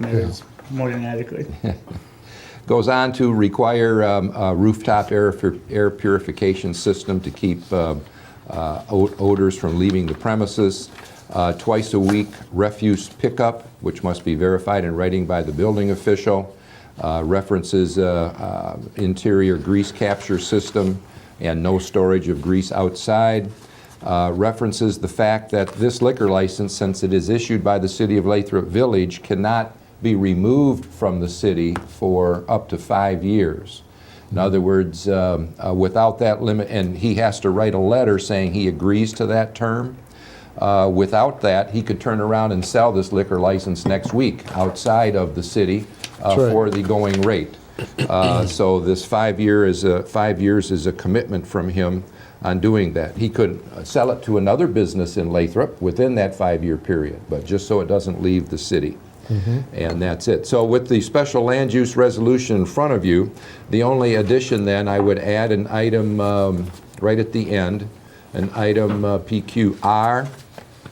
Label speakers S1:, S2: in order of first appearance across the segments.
S1: I mean, it's more than adequate.
S2: Goes on to require um, a rooftop air fu- air purification system to keep um, uh, o- odors from leaving the premises. Uh, Twice a week refuse pickup, which must be verified in writing by the building official. Uh, References uh, uh, interior grease capture system and no storage of grease outside. Uh, References the fact that this liquor license, since it is issued by the city of Lathrop Village, cannot be removed from the city for up to five years. In other words, um, uh, without that limit, and he has to write a letter saying he agrees to that term. Uh, Without that, he could turn around and sell this liquor license next week outside of the city uh,
S3: That's right.
S2: for the going rate. Uh, So this five year is a, five years is a commitment from him on doing that. He could uh, sell it to another business in Lathrop within that five-year period, but just so it doesn't leave the city.
S3: Mm-hmm.
S2: And that's it. So with the special land use resolution in front of you, the only addition then, I would add an item um, right at the end, an item uh, PQR,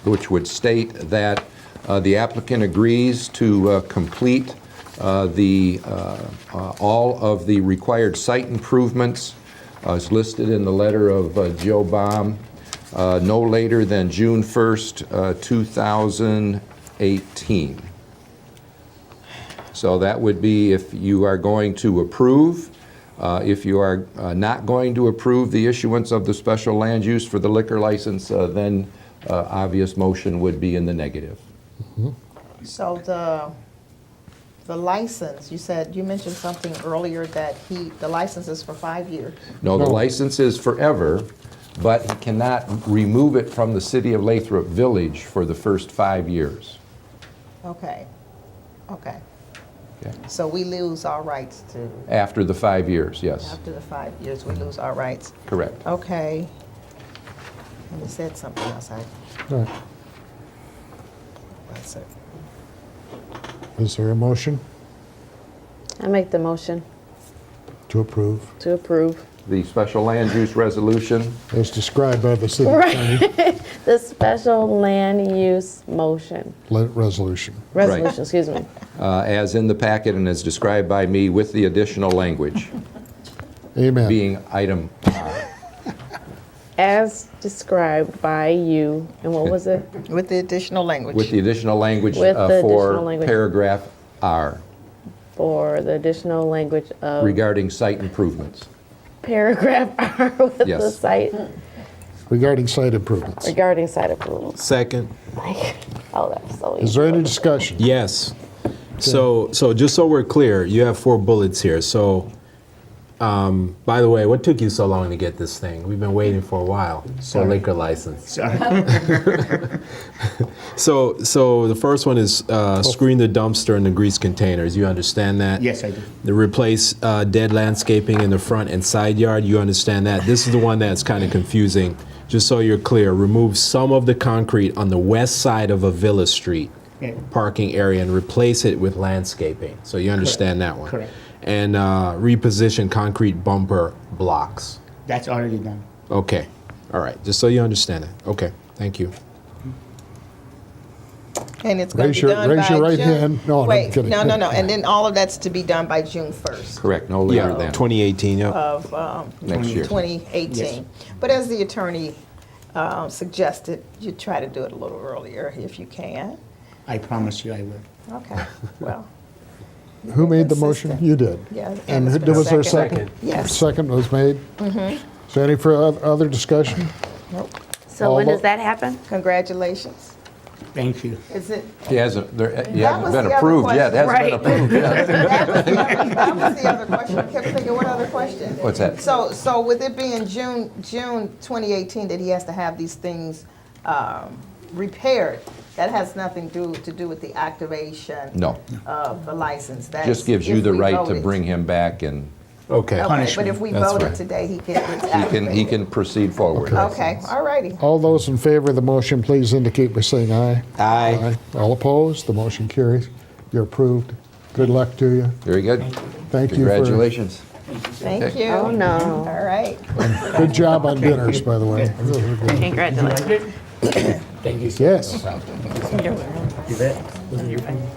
S2: which would state that uh, the applicant agrees to uh, complete uh, the, uh, uh, all of the required site improvements uh, as listed in the letter of uh, Joe Baum, uh, no later than June 1st, uh, 2018. So that would be if you are going to approve. Uh, If you are uh, not going to approve the issuance of the special land use for the liquor license, uh, then uh, obvious motion would be in the negative.
S4: So the, the license, you said, you mentioned something earlier that he, the license is for five years.
S2: No, the
S3: No.
S2: license is forever, but he cannot remove it from the city of Lathrop Village for the first five years.
S4: Okay, okay.
S2: Okay.
S4: So we lose our rights to,
S2: After the five years, yes,
S4: after the five years, we lose our rights.
S2: correct.
S4: Okay. And he said something else, I,
S3: Right.
S4: that's it.
S3: Is there a motion
S5: I make the motion
S3: to approve
S5: to approve
S2: The special land use resolution,
S3: as described by the city
S5: Right.
S3: attorney?
S5: the special land use motion,
S3: le- Resolution.
S5: resolution, excuse me.
S2: uh, as in the packet and as described by me with the additional language,
S3: Amen.
S2: being item
S5: As described by you, and what was it?
S4: With the additional
S2: With
S4: language.
S2: the additional language
S5: With
S2: uh,
S5: the additional
S2: for
S5: language.
S2: paragraph R
S5: For the additional language of
S2: regarding site improvements.
S5: paragraph R with the
S2: Yes.
S5: site
S3: Regarding site improvements,
S5: regarding site approvals.
S6: Second.
S5: Oh, that's so
S3: is
S5: easy.
S3: there any discussion?
S6: Yes. So, so just so we're clear, you have four bullets here. So, um, by the way, what took you so long to get this thing? We've been waiting for a while for
S1: Sorry.
S6: liquor license.
S1: So,
S6: So, so the first one is uh, screen the dumpster and the grease containers. You understand that?
S1: yes, I do.
S6: The replace uh, dead landscaping in the front and side yard. You understand that? This is the one that's kind of confusing. Just so you're clear, remove some of the concrete on the west side of Avila Street
S1: Yeah.
S6: parking area and replace it with landscaping. So you understand that one.
S1: Correct.
S6: And uh, reposition concrete bumper blocks.
S1: That's already done.
S6: Okay. All right. Just so you understand it. Okay. Thank you.
S4: And it's going
S3: Raise
S4: to be
S3: your-
S4: done by June.
S3: raise your right hand. No, no, I'm
S4: Wait,
S3: kidding.
S4: no, no, no. And then all of that's to be done by June 1st.
S2: Correct, no later
S6: yeah.
S2: than.
S6: 2018. Yep.
S4: of um,
S2: Next year.
S4: 2018. But as the attorney um, suggested, you try to do it a little earlier if you can.
S1: I promise you I will.
S4: Okay, well,
S3: Who made the motion?
S4: Consistent.
S3: You did.
S4: yeah.
S3: And
S4: it's
S3: who-
S4: been a
S3: was there a second?
S4: Yes.
S3: Second was made. Is there any for oth- other discussion?
S4: Nope.
S5: So when
S3: All
S5: does
S3: the-
S5: that happen?
S4: Congratulations.
S1: Thank you.
S4: Is it,
S2: He hasn't, there- uh, he
S4: That
S2: hasn't
S4: was
S2: been
S4: the other
S2: approved yet,
S4: question.
S2: hasn't been
S5: Right.
S2: approved yet.
S4: that was the other question. I kept thinking, what other question?
S2: What's that?
S4: So, so with it being June, June 2018, that he has to have these things um, repaired, that has nothing do, to do with the activation?
S2: No,
S4: of the license. That's
S2: just gives you
S4: if
S2: the
S4: we
S2: right to
S4: voted.
S2: bring him back and
S6: Okay.
S4: Okay, but if
S1: Punishment.
S4: we
S6: That's
S4: voted
S6: right.
S4: today, he can, it's
S2: he can, he
S4: activated.
S2: can proceed forward.
S4: Okay, all righty.
S3: All those in favor of the motion, please indicate by saying aye. Aye. All opposed, the motion carries. You're approved. Good luck to you.
S2: Very good.
S3: Thank you for.
S2: Congratulations.
S4: Thank
S2: Okay.
S4: you.
S5: Oh, no.
S4: All right.
S3: Good job on dinners, by the way. Really good.
S5: Congratulations.
S3: Yes.
S1: You bet. Wasn't your friend?